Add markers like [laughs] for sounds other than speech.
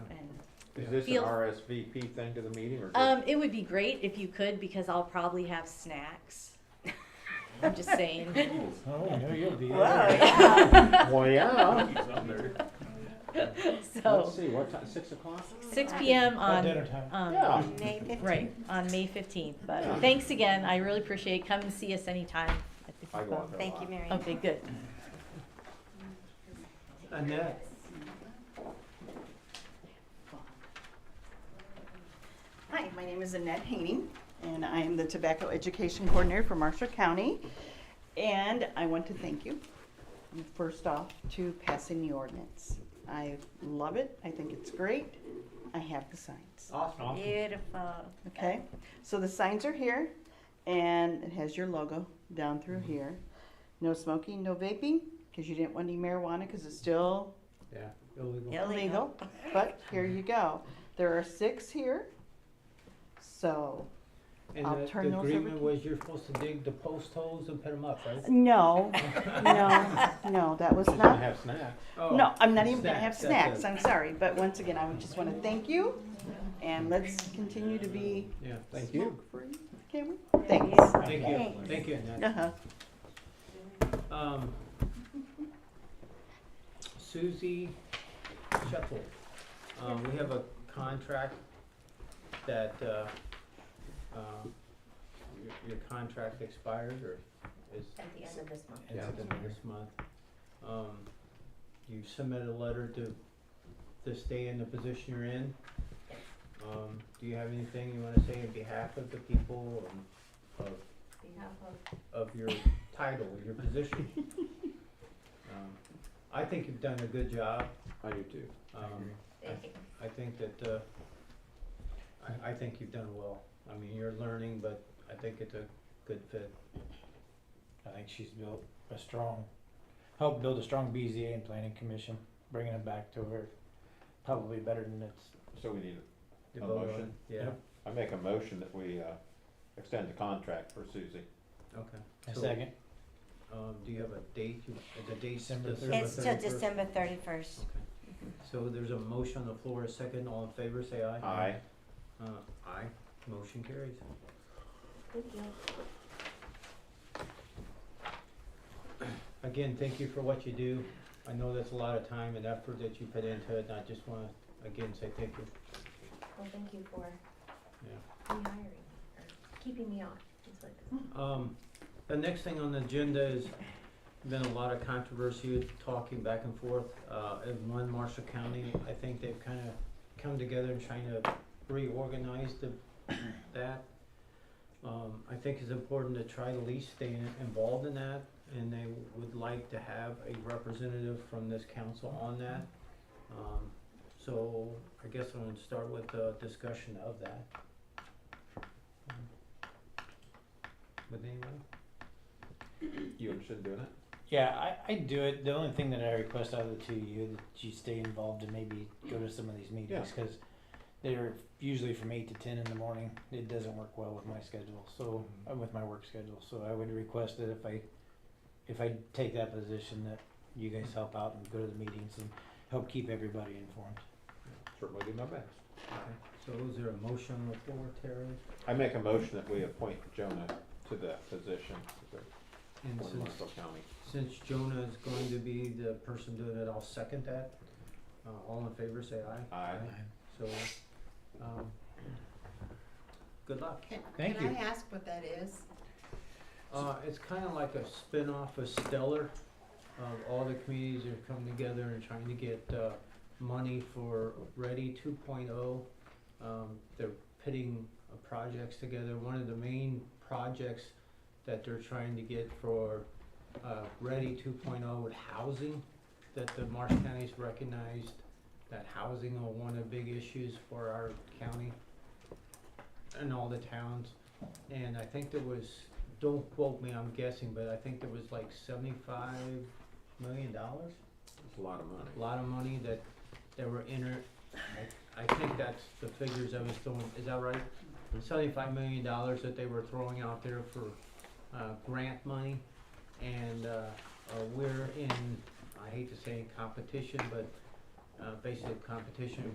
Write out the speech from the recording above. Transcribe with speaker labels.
Speaker 1: Is this an
Speaker 2: Feel-
Speaker 1: RSVP thing to the meeting or? just-
Speaker 2: Um, it would be great if you could because I'll probably have snacks. [laughs] I'm just saying. [laughs]
Speaker 3: Oh, I know you'll be
Speaker 4: Whoa,
Speaker 3: there.
Speaker 4: yeah.
Speaker 5: Um,
Speaker 1: [laughs] Well, yeah.
Speaker 5: [laughs]
Speaker 1: Let's
Speaker 2: So,
Speaker 1: see, what time, six o'clock?
Speaker 2: six PM
Speaker 3: About
Speaker 2: on,
Speaker 3: dinner time.
Speaker 2: um,
Speaker 1: Yeah.
Speaker 4: May fifteenth.
Speaker 2: right, on May fifteenth.
Speaker 1: Yeah.
Speaker 2: But thanks again. I really appreciate it. Come and see us anytime. at the
Speaker 1: I go
Speaker 2: depot.
Speaker 1: out there a
Speaker 4: Thank you,
Speaker 1: lot.
Speaker 4: Mary.
Speaker 2: Okay, good.
Speaker 3: Annette,
Speaker 5: Hi, my name is Annette Haining, and I am the Tobacco Education Coordinator for Marshall County. And I want to thank you, first off, to passing the ordinance. I love it, I think it's great, I have the signs,
Speaker 3: awesome.
Speaker 4: Beautiful.
Speaker 5: okay? So the signs are here, and it has your logo down through here. No smoking, no vaping, because you didn't want any marijuana, because it's still
Speaker 3: Yeah, illegal.
Speaker 4: Yep.
Speaker 5: illegal, [laughs] but here you go. There are six here, so
Speaker 3: And
Speaker 5: I'll
Speaker 3: the-
Speaker 5: turn
Speaker 3: the
Speaker 5: those over
Speaker 3: agreement
Speaker 5: to-
Speaker 3: was you're supposed to dig the post holes and put them up, right?
Speaker 5: No, [laughs] no, no, that was
Speaker 1: She's gonna
Speaker 5: not,
Speaker 1: have snacks.
Speaker 3: Oh,
Speaker 5: no, I'm not even gonna have
Speaker 3: snacks, that's
Speaker 5: snacks,
Speaker 3: it.
Speaker 5: I'm sorry, but once again, I would just wanna thank you, and let's continue to be
Speaker 3: Yeah, thank you.
Speaker 5: smoke-free, can we?
Speaker 4: Thank
Speaker 5: Thanks.
Speaker 3: Thank you,
Speaker 4: Thanks.
Speaker 3: thank you, Annette.
Speaker 5: Uh-huh.
Speaker 3: Um, Susie Shuffle, um, we have a contract that, uh, uh, your, your contract expires or is
Speaker 4: At the end of this month.
Speaker 3: ends
Speaker 1: Yeah.
Speaker 3: at the end of this month. Um, you submit a letter to, to stay in the position you're in. Um, do you have anything you wanna say in behalf of the people and of of your title,
Speaker 4: [laughs]
Speaker 3: your position. Um, I think you've done a good job.
Speaker 1: I do too.
Speaker 3: Um,
Speaker 4: Thank you.
Speaker 3: I think that, uh, I, I think you've done well. I mean, you're learning, but I think it's a good fit.
Speaker 6: I think she's built a strong, helped build a strong BZA and planning commission, bringing it back to her, probably better than it's.
Speaker 1: So we need,
Speaker 3: The
Speaker 1: A
Speaker 3: vote on-
Speaker 1: motion?
Speaker 3: Yeah,
Speaker 6: Yep.
Speaker 1: I make a motion that we, uh, extend the contract for Susie.
Speaker 3: okay.
Speaker 6: A
Speaker 3: So,
Speaker 6: second,
Speaker 3: Um, do you have a date, You- uh, the date's
Speaker 6: December
Speaker 3: December
Speaker 4: It's till
Speaker 3: 31st?
Speaker 4: December thirty-first.
Speaker 3: Okay. So there's a motion on the floor, a second, all in favor, say aye.
Speaker 1: Aye.
Speaker 3: Uh, aye, motion carries. Again, thank you for what you do. I know that's a lot of time and effort that you put into it, and I just wanna, again, say thank you.
Speaker 7: Well, thank you for
Speaker 3: Yeah.
Speaker 7: rehiring, me, or keeping me on, it's like,
Speaker 3: Um, the next thing on the agenda is been a lot of controversy, talking back and forth, uh, in one Marshall County. I think they've kinda come together and trying to reorganize the, that. Um, I think it's important to try to at least stay in- involved in that, and they would like to have a representative from this council on that. Um, so I guess I'm gonna start with the discussion of that. With anyone?
Speaker 1: You interested in doing it?
Speaker 6: yeah, I, I do it, the only thing that I request out of the two of you, that you stay involved and maybe go to some of these meetings, cause they're usually from eight to ten in the morning, it doesn't work well with my schedule, so, uh, with my work schedule, so I would request that if I, if I take that position, that you guys help out and go to the meetings and help keep everybody informed.
Speaker 1: Certainly do my best.
Speaker 3: Okay, so is there a motion on the floor, Terry?
Speaker 1: I make a motion that we appoint Jonah to that position
Speaker 3: And
Speaker 1: for
Speaker 3: since,
Speaker 1: Marshall County.
Speaker 3: since Jonah is going to be the person doing it, I'll second that. Uh, all in favor, say aye.
Speaker 1: Aye.
Speaker 3: So, um, good luck.
Speaker 6: Thank you.
Speaker 4: Can I ask what that is?
Speaker 3: Uh, it's kinda like a spin-off of Stellar. Um, all the communities are coming together and trying to get, uh, money for Ready two Um, they're pitting uh, projects together. One of the main projects that they're trying to get for, uh, Ready two oh with housing, that the Marsh County's recognized that housing are one of the big issues for our county and all the towns. And I think there was, don't quote me, I'm guessing, but I think there was like seventy-five million dollars?
Speaker 1: It's a lot of money.
Speaker 3: A lot of money that, that were inter, I, I think that's the figures I was throwing, is that right? Seventy-five million dollars that they were throwing out there for, uh, grant money. And, uh, uh, we're in, I hate to say in competition, but, uh, basically competition